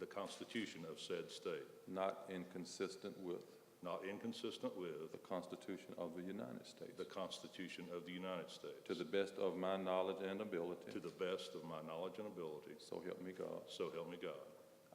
the Constitution of said state, not inconsistent with not inconsistent with the Constitution of the United States, the Constitution of the United States, to the best of my knowledge and ability, to the best of my knowledge and ability, so help me God. so help me God.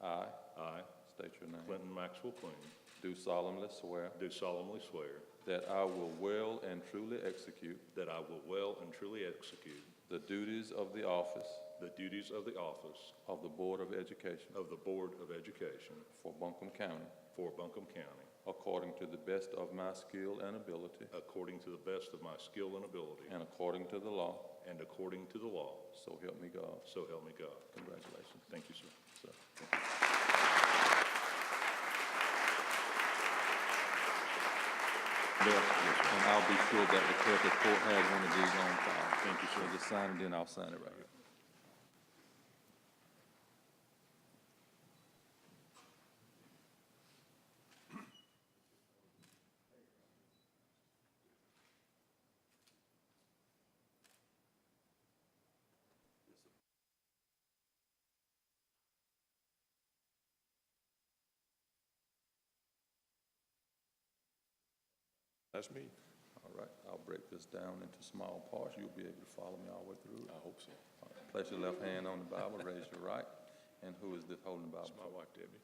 I, I, state your name, Clinton Maxwell Queen, do solemnly swear do solemnly swear that I will well and truly execute that I will well and truly execute the duties of the office the duties of the office of the Board of Education of the Board of Education for Buncombe County, for Buncombe County, according to the best of my skill and ability, according to the best of my skill and ability, and according to the law, and according to the law, so help me God. so help me God. Congratulations, Thank you, sir. sir. Bill, And I'll be sure that the clerk of court has one of these on file. Thank you, sir. Just sign it, then I'll sign it right here. That's me. All right, I'll break this down into small parts. You'll be able to follow me all the way through. it. I hope so. All right, Place your left hand on the Bible, raise your right. And who is this holding the Bible? It's my wife, Debbie.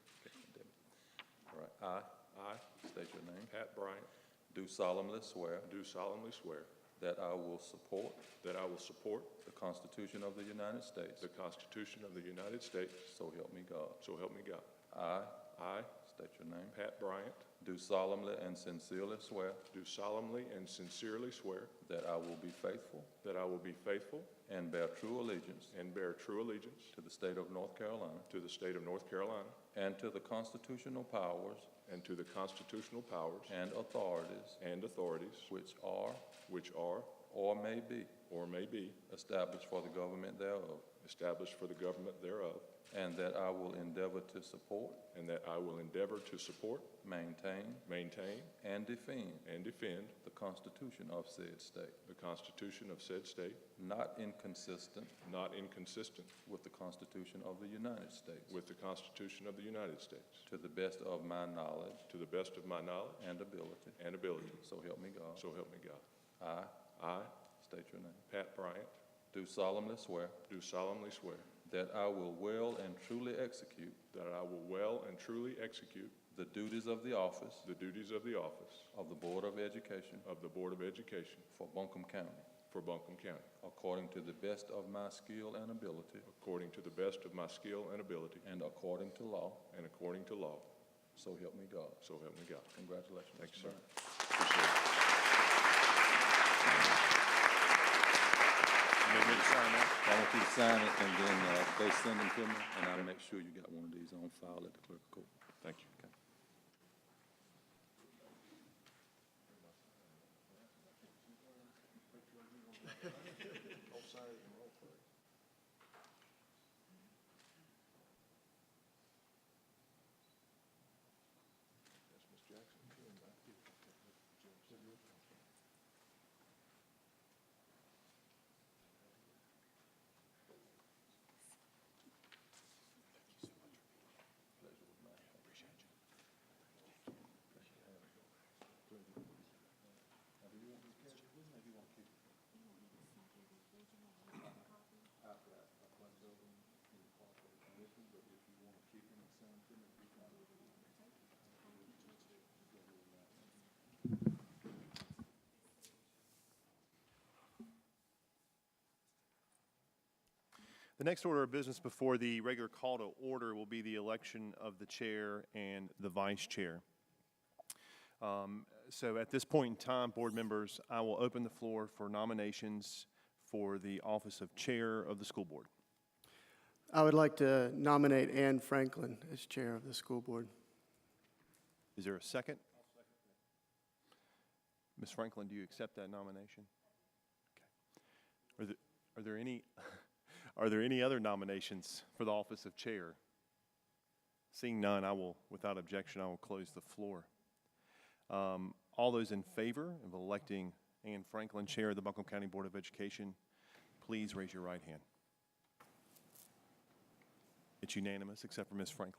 All right, I, I state your name. Pat Bryant, Do solemnly swear do solemnly swear that I will support that I will support the Constitution of the United States. the Constitution of the United States, So help me God. so help me God. I, I, state your name, Pat Bryant, do solemnly and sincerely swear do solemnly and sincerely swear that I will be faithful that I will be faithful and bear true allegiance and bear true allegiance to the state of North Carolina to the state of North Carolina and to the constitutional powers and to the constitutional powers and authorities and authorities which are which are or may be or may be established for the government thereof, established for the government thereof, and that I will endeavor to support, and that I will endeavor to support, maintain, maintain, and defend and defend the Constitution of said state, the Constitution of said state, not inconsistent not inconsistent with the Constitution of the United States, With the Constitution of the United States. to the best of my knowledge To the best of my knowledge and ability. and ability. So help me God. So help me God. I, I, state your name, Pat Bryant, do solemnly swear do solemnly swear that I will well and truly execute that I will well and truly execute the duties of the office the duties of the office of the Board of Education of the Board of Education for Buncombe County, for Buncombe County, according to the best of my skill and ability, according to the best of my skill and ability, and according to law, and according to law. so help me God. So help me God. Congratulations. Thank you, sir. Mr. Bryant. Appreciate it. I want you to sign it, and then uh, they send them to me, and I'll make sure you got one of these on file at the clerk of court. Thank you. The next order of business before the regular call to order will be the election of the chair and the vice chair. Um, So at this point in time, board members, I will open the floor for nominations for the office of chair of the school board. I would like to nominate Anne Franklin as chair of the school board. Is there a second? Ms. Franklin, do you accept that nomination? Okay. Are there, are there any, are there any other nominations for the office of chair? Seeing none, I will, without objection, I will close the floor. Um, all those in favor of electing Anne Franklin, Chair of the Buncombe County Board of Education, please raise your right hand. It's unanimous, except for Ms. Franklin.